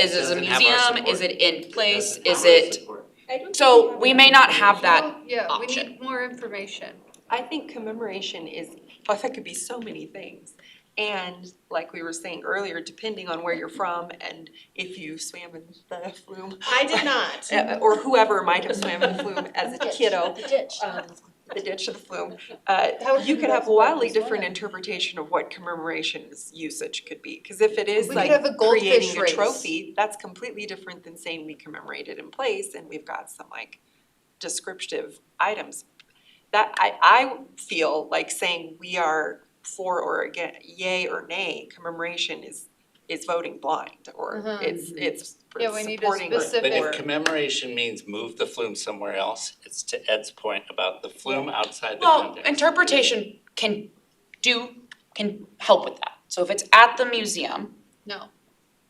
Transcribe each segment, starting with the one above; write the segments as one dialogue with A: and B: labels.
A: Is it a
B: Doesn't have our
A: museum?
B: support.
A: Is it in place?
B: Doesn't
A: Is
B: have our
A: it,
B: support.
C: I don't think
A: so
C: have
A: we
C: that.
A: may not have that.
D: Yeah, we
A: option.
D: need more information.
E: I think commemoration is, well, that could be so many things. And like we were saying earlier, depending on where you're from and if you swam in the flume,
C: I did not.
E: uh, or whoever might have swam in the flume as a kiddo,
C: The ditch.
E: um, the ditch of the flume, uh,
C: That would
E: you
C: be
E: could
C: the
E: have
C: best one,
E: wildly
C: just one
E: different
C: of-
E: interpretation of what commemoration's usage could be. Because if it is
D: We could
E: like
D: have a goldfish
E: creating a
D: race.
E: trophy, that's completely different than saying we commemorated in place and we've got some like descriptive items. That, I, I feel like saying we are for or again, yay or nay commemoration is, is voting blind or
D: Mhm.
E: it's, it's
D: Yeah, we need a
E: supporting or-
B: But if
D: specific-
B: commemoration means move the flume somewhere else, it's to Ed's point about the flume outside the
A: Well,
B: context.
A: interpretation can do, can help with that. So if it's at the museum,
D: No,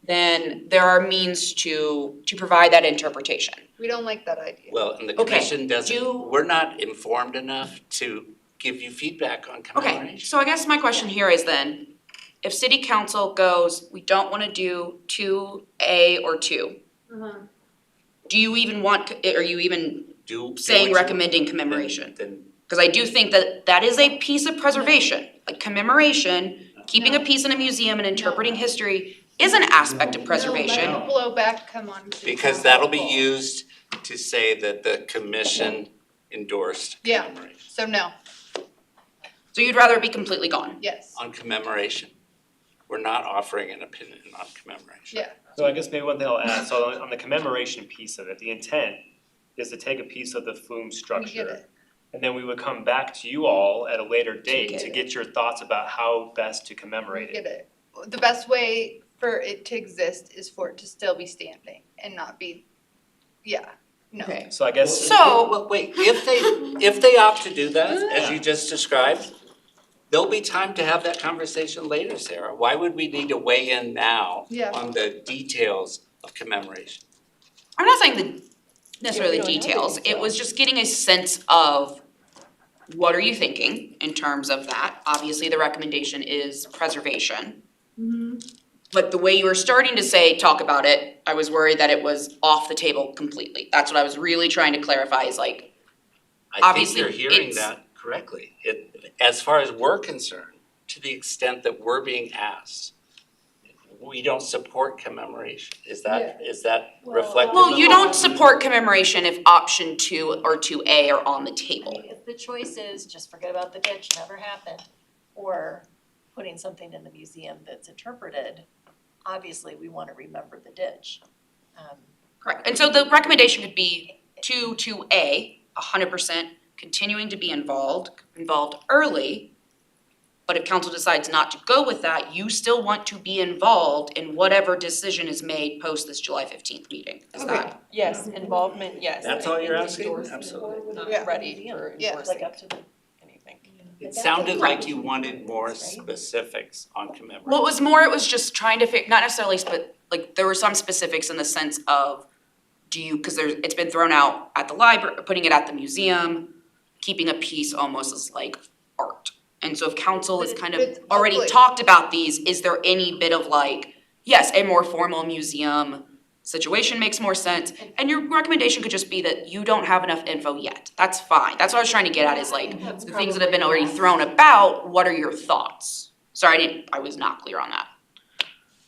A: then there are means to, to provide that interpretation.
D: we don't like that idea.
B: Well, and the
A: Okay,
B: commission
A: do-
B: doesn't, we're not informed enough to give you feedback on
A: Okay,
B: commemoration.
A: so I guess my question here is then, if city council goes, we don't wanna do two A or two, do you even want, are you even
B: Do, do what
A: saying
B: you-
A: recommending
B: then-
A: commemoration?
B: Then,
A: Cause I do think that that is a piece of preservation, like commemoration, keeping a piece in a museum and interpreting history is an aspect of
D: No,
A: preservation.
D: let blowback come on. people.
B: because that'll be used to say that the commission endorsed
D: Yeah.
B: commemoration,
D: So no,
A: So you'd rather it be completely gone?
D: yes,
B: on commemoration. We're not offering an opinion on commemoration.
D: yeah,
F: So I guess maybe one thing I'll add, so on- on the commemoration piece of it, the intent is to take a piece of the flume
D: we
F: structure.
D: get it.
F: And then we would come back to you all at a later date
A: get
F: to
A: it.
F: get your thoughts about how best to
D: We
F: commemorate it.
D: get it. The best way for it to exist is for it to still be standing and not be, yeah, no.
F: So I guess.
A: So-
B: Well, wait, if they, if they opt to do that, as you just described, there'll be time to have that conversation later, Sarah. Why would we need to weigh in now
D: Yeah.
B: on the details of commemoration?
A: I'm not saying the necessarily
E: Yeah, we don't have
A: details,
E: any,
A: it was just getting a sense of what are you thinking in terms of that? Obviously, the recommendation is preservation. But the way you were starting to say, talk about it, I was worried that it was off the table completely. That's what I was really trying to clarify is like,
B: I think
A: Obviously,
B: you're hearing
A: it's-
B: that correctly. It, as far as we're concerned, to the extent that we're being asked, we don't support commemoration. Is that, is that
C: Well-
B: reflective
A: well, you
B: of-
A: don't support commemoration if option two or two A are on the table.
C: If the choice is just forget about the ditch, never happened, or putting something in the museum that's interpreted, obviously, we wanna remember the ditch. Um,
A: Correct. And so the recommendation could be two, two A, hundred percent, continuing to be involved, involved early. But if council decides not to go with that, you still want to be involved in whatever decision is made post this July fifteenth meeting. Is
E: Okay.
A: that,
E: Yes, involvement, yes.
B: That's all you're asking?
E: Endorsement,
B: Absolutely.
E: Not
D: Yeah.
E: uh, ready for
D: Yeah.
E: endorsing
C: up to the.
E: anything.
B: It sounded like you wanted more specifics on commemoration.
A: well, it was more, it was just trying to fig, not necessarily, but like there were some specifics in the sense of, do you, cause there's, it's been thrown out at the library, putting it at the museum, keeping a piece almost as like art. And so if council is
D: But it-
A: kind
D: but
A: of already
D: hopefully-
A: talked about these, is there any bit of like, yes, a more formal museum situation makes more sense? And your recommendation could just be that you don't have enough info yet, that's fine, that's what I was trying to get at is like, the things that have been already thrown about, what are your thoughts? Sorry, I didn't, I was not clear on that.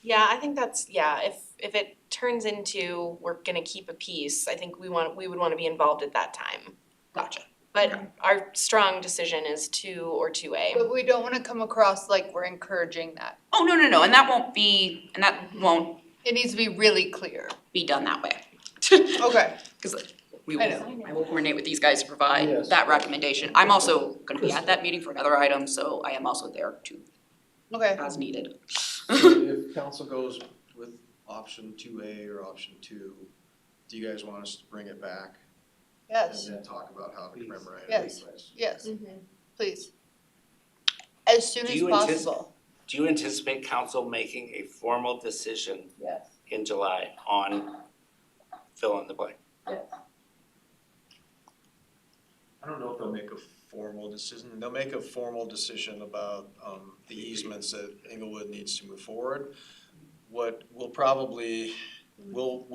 G: Yeah, I think that's, yeah, if, if it turns into we're gonna keep a piece, I think we want, we would wanna be involved at that time.
A: Gotcha.
G: But our strong decision is two or two A.
D: But we don't wanna come across like we're encouraging that.
A: Oh, no, no, no, and that won't be, and that won't
D: It needs to be really clear.
A: be done that way.
D: Okay,
A: Cause we
D: I
A: will, I will coordinate with these guys to provide
H: Yes.
A: that recommendation. I'm also gonna be at that meeting for another item, so I am also there too,
D: okay.
A: as needed.
H: So if council goes with option two A or option two, do you guys want us to bring it back?
D: Yes,
H: And then talk about how to commemorate it?
D: Yes.
H: Yes.
D: yes,
C: Mm-hmm.
D: please. As soon
B: Do
D: as
B: you anticipate-
D: possible.
B: Do you anticipate council making a formal decision in July on fill in the blank?
H: I don't know if they'll make a formal decision, they'll make a formal decision about, um, the easements that Inglewood needs to move forward. What will probably